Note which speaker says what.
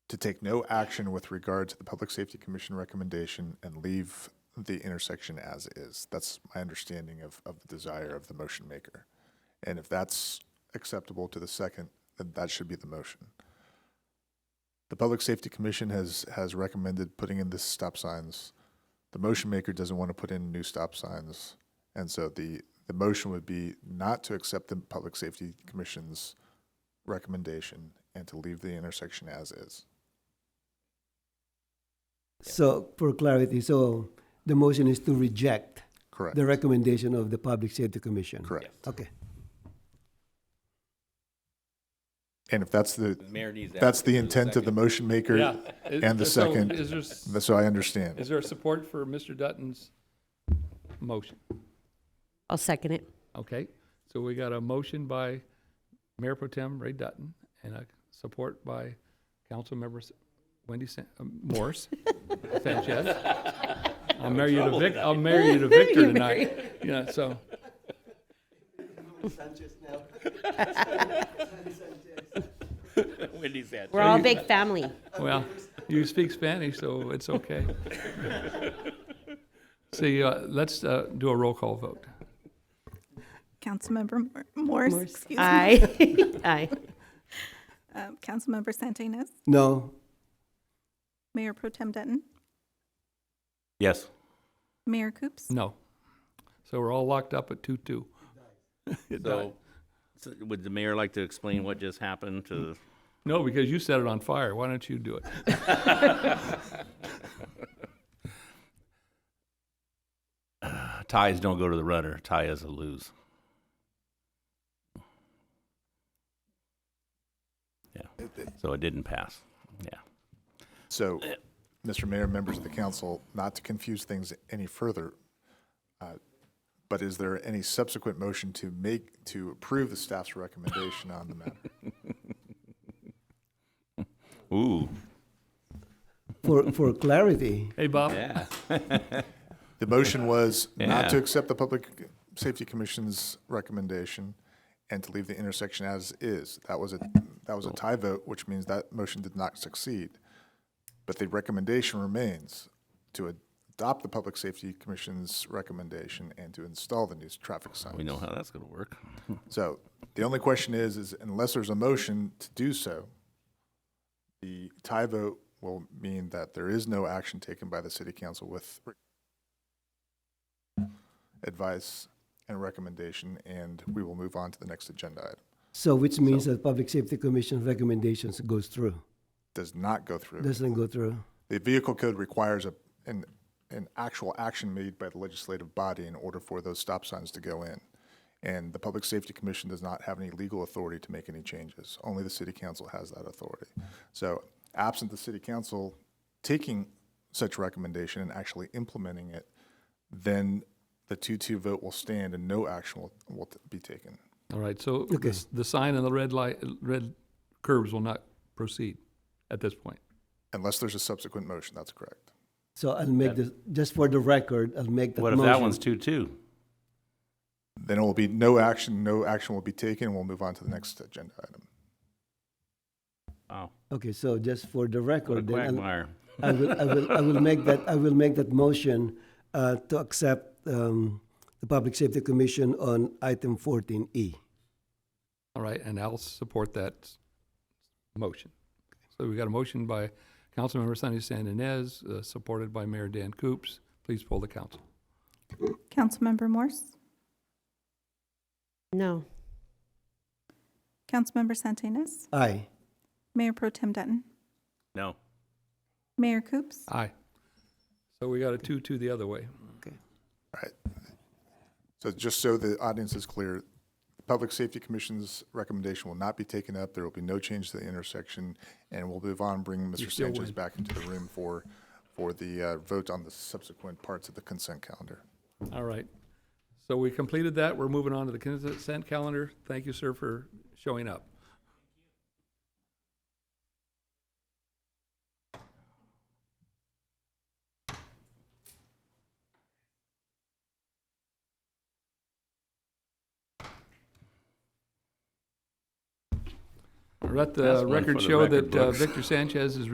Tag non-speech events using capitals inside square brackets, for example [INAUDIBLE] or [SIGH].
Speaker 1: to take no action with regard to the Public Safety Commission recommendation and leave the intersection as is. That's my understanding of, of the desire of the motion maker. And if that's acceptable to the second, then that should be the motion. The Public Safety Commission has, has recommended putting in the stop signs. The motion maker doesn't want to put in new stop signs. And so the, the motion would be not to accept the Public Safety Commission's recommendation and to leave the intersection as is.
Speaker 2: So for clarity, so the motion is to reject
Speaker 1: Correct.
Speaker 2: the recommendation of the Public Safety Commission?
Speaker 1: Correct.
Speaker 2: Okay.
Speaker 1: And if that's the,
Speaker 3: The mayor needs that.
Speaker 1: that's the
Speaker 3: There's a
Speaker 1: intent of the
Speaker 3: second.
Speaker 1: motion maker,
Speaker 4: Is-
Speaker 1: and the
Speaker 4: so
Speaker 1: second-
Speaker 4: Is there, s-
Speaker 1: so I understand.
Speaker 4: is there support for Mr. Dutton's motion?
Speaker 5: I'll second it.
Speaker 4: Okay, so we got a motion by Mayor Pro Tem Ray Dutton and a support by Council Members Wendy San- uh, Morse Sanchez. I'll marry you to Vic, I'll marry you to Victor
Speaker 5: You
Speaker 4: tonight. Yeah, so,
Speaker 3: [LAUGHS] Wendy said.
Speaker 5: We're all a big family.
Speaker 4: well, you speak Spanish, so it's okay. See, uh, let's uh, do a roll call vote.
Speaker 6: Councilmember Mor- Morse, excuse me.
Speaker 5: Aye. [LAUGHS] Aye.
Speaker 6: [LAUGHS] Um, Councilmember Santinas,
Speaker 2: No,
Speaker 6: Mayor Pro Tem Dutton,
Speaker 3: Yes.
Speaker 6: Mayor Coops,
Speaker 4: No. So we're all locked up at two-two. It died.
Speaker 3: So, so would the mayor like to explain what just happened to?
Speaker 4: No, because you set it on fire. Why don't you do it?
Speaker 3: [LAUGHS] Ties don't go to the runner. Tie is a lose. Yeah. So it didn't pass. Yeah.
Speaker 1: So, Mr. Mayor, members of the council, not to confuse things any further, uh, but is there any subsequent motion to make, to approve the staff's recommendation on the matter?
Speaker 3: Ooh.
Speaker 2: for, for clarity,
Speaker 4: Hey, Bob?
Speaker 3: Yeah.
Speaker 1: The motion was not to
Speaker 3: Yeah.
Speaker 1: accept the Public Safety Commission's recommendation and to leave the intersection as is. That was a, that was a tie vote, which means that motion did not succeed. But the recommendation remains to adopt the Public Safety Commission's recommendation and to install the new traffic signs.
Speaker 3: We know how that's going to work.
Speaker 1: So the only question is, is unless there's a motion to do so, the tie vote will mean that there is no action taken by the city council with advice and recommendation, and we will move on to the next agenda item.
Speaker 2: so which means that Public Safety Commission recommendations goes through,
Speaker 1: Does not go through.
Speaker 2: doesn't go through.
Speaker 1: The vehicle code requires a, an, an actual action made by the legislative body in order for those stop signs to go in. And the Public Safety Commission does not have any legal authority to make any changes. Only the city council has that authority. So absent the city council taking such recommendation and actually implementing it, then the two-two vote will stand and no action will, will be taken.
Speaker 4: All right, so the, s- the sign and the red light, red curves will not proceed at this point.
Speaker 1: Unless there's a subsequent motion, that's correct.
Speaker 2: So I'll make this, just for the record, I'll make that
Speaker 3: What
Speaker 2: motion.
Speaker 3: if that one's two-two?
Speaker 1: Then it will be no action, no action will be taken, and we'll move on to the next agenda item.
Speaker 3: Wow.
Speaker 2: Okay, so just for the
Speaker 3: Oh, What a
Speaker 2: record, then I'll-
Speaker 3: quagmire.
Speaker 2: I will, I will, I will make that, I will make that motion uh, to accept um, the Public Safety Commission on item E. 14E.
Speaker 4: All right, and I'll support that motion. So we got a motion by Councilmember Sunny San Inez, uh, supported by Mayor Dan Coops. Please poll the council.
Speaker 6: Councilmember Morse,
Speaker 5: No.
Speaker 6: Councilmember Santinas,
Speaker 2: Aye.
Speaker 6: Mayor Pro Tem Dutton,
Speaker 3: No.
Speaker 6: Mayor Coops,
Speaker 4: Aye. So we got a two-two the other way.
Speaker 1: So just so the audience is clear, the Public Safety Commission's recommendation will not be taken up. There will be no change to the intersection, and we'll move on, bring Mr.
Speaker 4: still
Speaker 1: Sanchez
Speaker 4: win.
Speaker 1: back into the room for, for the uh, vote on the subsequent parts of the consent calendar.
Speaker 4: All right. So we completed that. We're moving on to the consent calendar. Thank you, sir, for showing up. Let
Speaker 3: That's
Speaker 4: the
Speaker 3: one
Speaker 4: record
Speaker 3: for the
Speaker 4: show
Speaker 3: record
Speaker 4: that uh,
Speaker 3: books.
Speaker 4: uh, Victor Sanchez is